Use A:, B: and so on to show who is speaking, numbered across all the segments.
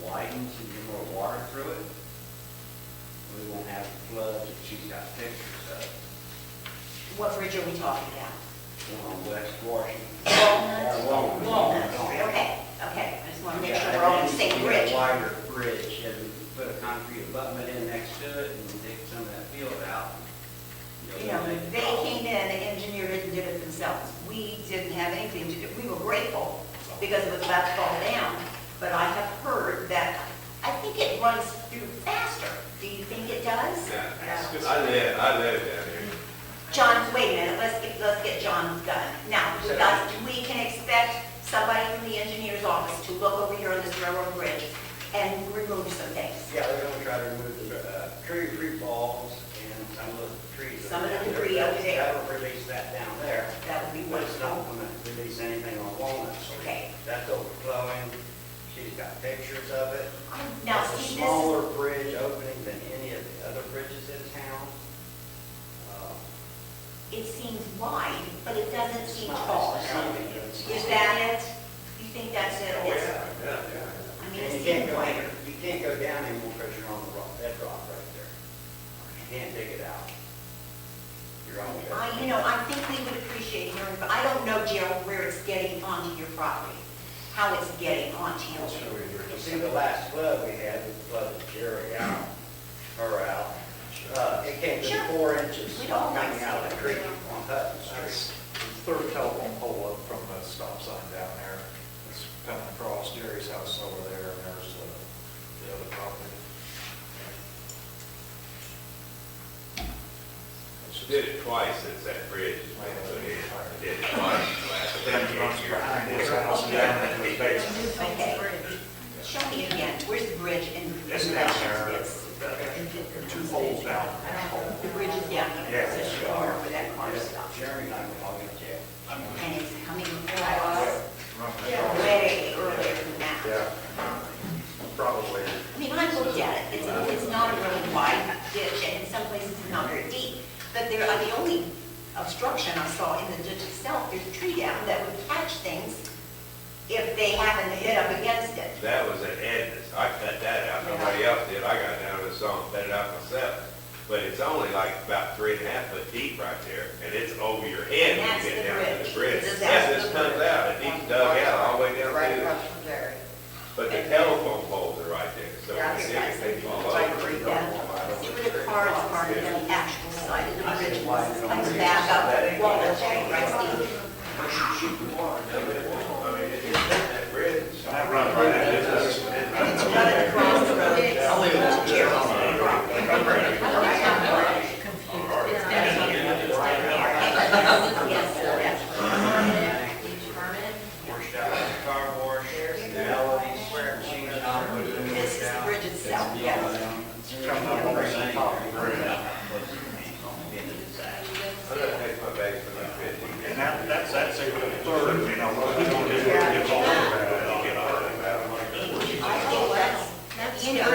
A: rains and get more water through it, we won't have the floods that she's got pictures of
B: What bridge are we talking about?
A: on West Washington.
B: Walnut?
A: Yeah, Walnut.
B: Walnut Street, okay, okay, I just want to make sure
A: Yeah,
B: we're all on
A: and
B: the same
A: you get
B: bridge.
A: a wider bridge and put a concrete abutment in next to it and dig some of that field out.
B: You know,
A: eliminate the
B: they
A: problem.
B: came in, engineered it, and did it themselves. We didn't have anything to do, we were grateful because it was about to fall down, but I have heard that, I think it runs through faster. Do you think it does? No.
C: I live, I live down here.
B: John, wait a minute, let's get, let's get John's gun. Now, we got, we can expect somebody from the engineer's office to look over here on this railroad bridge and remove some things.
A: Yeah, they're gonna try to remove the, uh, tree, tree balls and some of the trees.
B: Some of the
A: down there.
B: debris over there.
A: That'll release that down there,
B: That would be
A: but it's not
B: wonderful.
A: gonna release anything on Walnut Street.
B: Okay.
A: That's overflowing, she's got pictures of it.
B: Now,
A: It's a
B: see, this,
A: smaller bridge opening than any of the other bridges in town. Uh,
B: it seems wide, but it doesn't seem
A: It's not-
B: tall.
A: it's not big, it's
B: Is
A: not.
B: that it? You think that's it? It's-
C: Oh, yeah,
B: I mean,
A: Oh, And
B: it
A: you can't
B: seems
A: go,
B: wider.
A: you can't go down anymore because you're on the rock, that rock right there. You can't dig it out. You're on the.
B: I, you know, I think we would appreciate hearing, but I don't know, Gerald, where it's getting onto your property, how it's getting onto your
A: You see the last flood we had, we flooded Jerry out, her out. Uh, it came
B: Sure.
A: to four inches
B: We
A: coming
B: don't like
A: out of the
B: seeing
A: creek
B: it.
A: on Hutton
D: That's
A: Street.
D: the third telephone pole up from the stop sign down there. It's coming across Jerry's house over there, and there's uh, the other property.
C: She did it twice since that bridge was put in. I Did it twice in the last
D: Then it runs
C: ten years.
D: behind his house and down into his basement.
B: Okay. Show me again, where's the bridge in
D: It's
B: relation
D: down
B: to
D: there,
B: this?
D: There are two poles down.
B: The bridge is down here,
D: Yeah.
B: it's a corner where that car stopped.
A: Jerry and I were talking to Jeff.
B: And it's coming across
D: Yeah.
B: way earlier than that.
D: Yeah, probably.
B: I mean, I looked at it, it's, it's not a really wide ditch, and in some places it's not very deep. But there, uh, the only obstruction I saw in the ditch itself, there's a tree down that would catch things if they happened to hit up against it.
C: That was an end. I cut that out. Nobody else did. I got down to the song, cut it out myself. But it's only like about three and a half foot deep right there, and it's over your head when
B: That's
C: you
B: the
C: get down to
B: bridge.
C: the bridge.
B: This is
C: Yeah, this
B: the
C: comes
B: bridge.
C: out, it deep dug out all the way down
E: Right
C: through.
E: across from Jerry.
C: But the telephone poles are right there, so
E: Yeah, I
C: it's,
E: think that's-
C: they fall
E: it's like
C: over.
E: a reed.
B: Yeah, see where the car is parked on the actual side of the bridge, it's like the back up, wall, that's right, Steve.
C: I mean, it- it's that bridge.
D: That runs right into his basement.
B: It's running across the road, it's all over Gerald's property. Yes, yes.
A: Washed out like a car wash, Melody swear machine shop.
B: This is the bridge itself, yes.
D: Coming up on the top of the bridge.
C: I'm gonna take my bag for that fifty.
D: And that, that's, that's a good third, you know, what we don't do is get all about it, I'll get all about
B: I think that's, you know.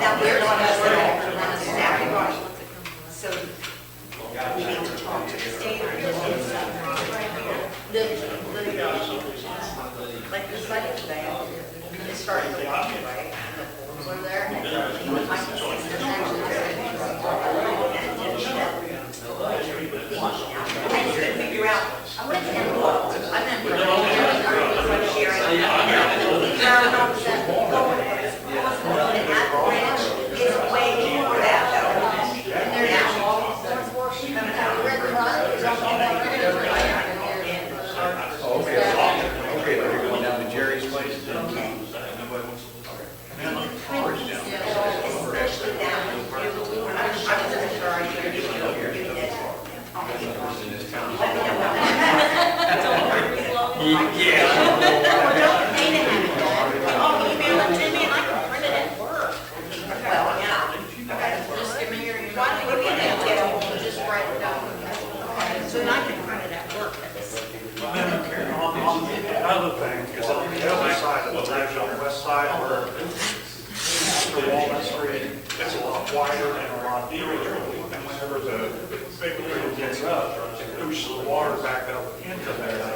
B: Now, we're on a, exactly right. So we need to talk to the state or the
E: Like the second thing, it started with walking, right? Over there.
B: I just couldn't figure out, I went and looked, I meant for the from Sharon. That branch is way more that though. And they're now,
D: Okay, are you going down to Jerry's place?
B: okay, especially down in here. I'm just sorry, you're doing it. Well, don't pay to have it done, but I'll email it to me and I can print it at work. Well, yeah.
E: Just give me your. email.
B: Why don't we get it?
E: Just write it down. So then I can print it at work.
D: On, on the other thing, is on the other side of the bridge, on the west side where the Walnut Street, it's a lot wider and a lot deeper. And whenever the big wheel gets up, it pushes the water back up into there.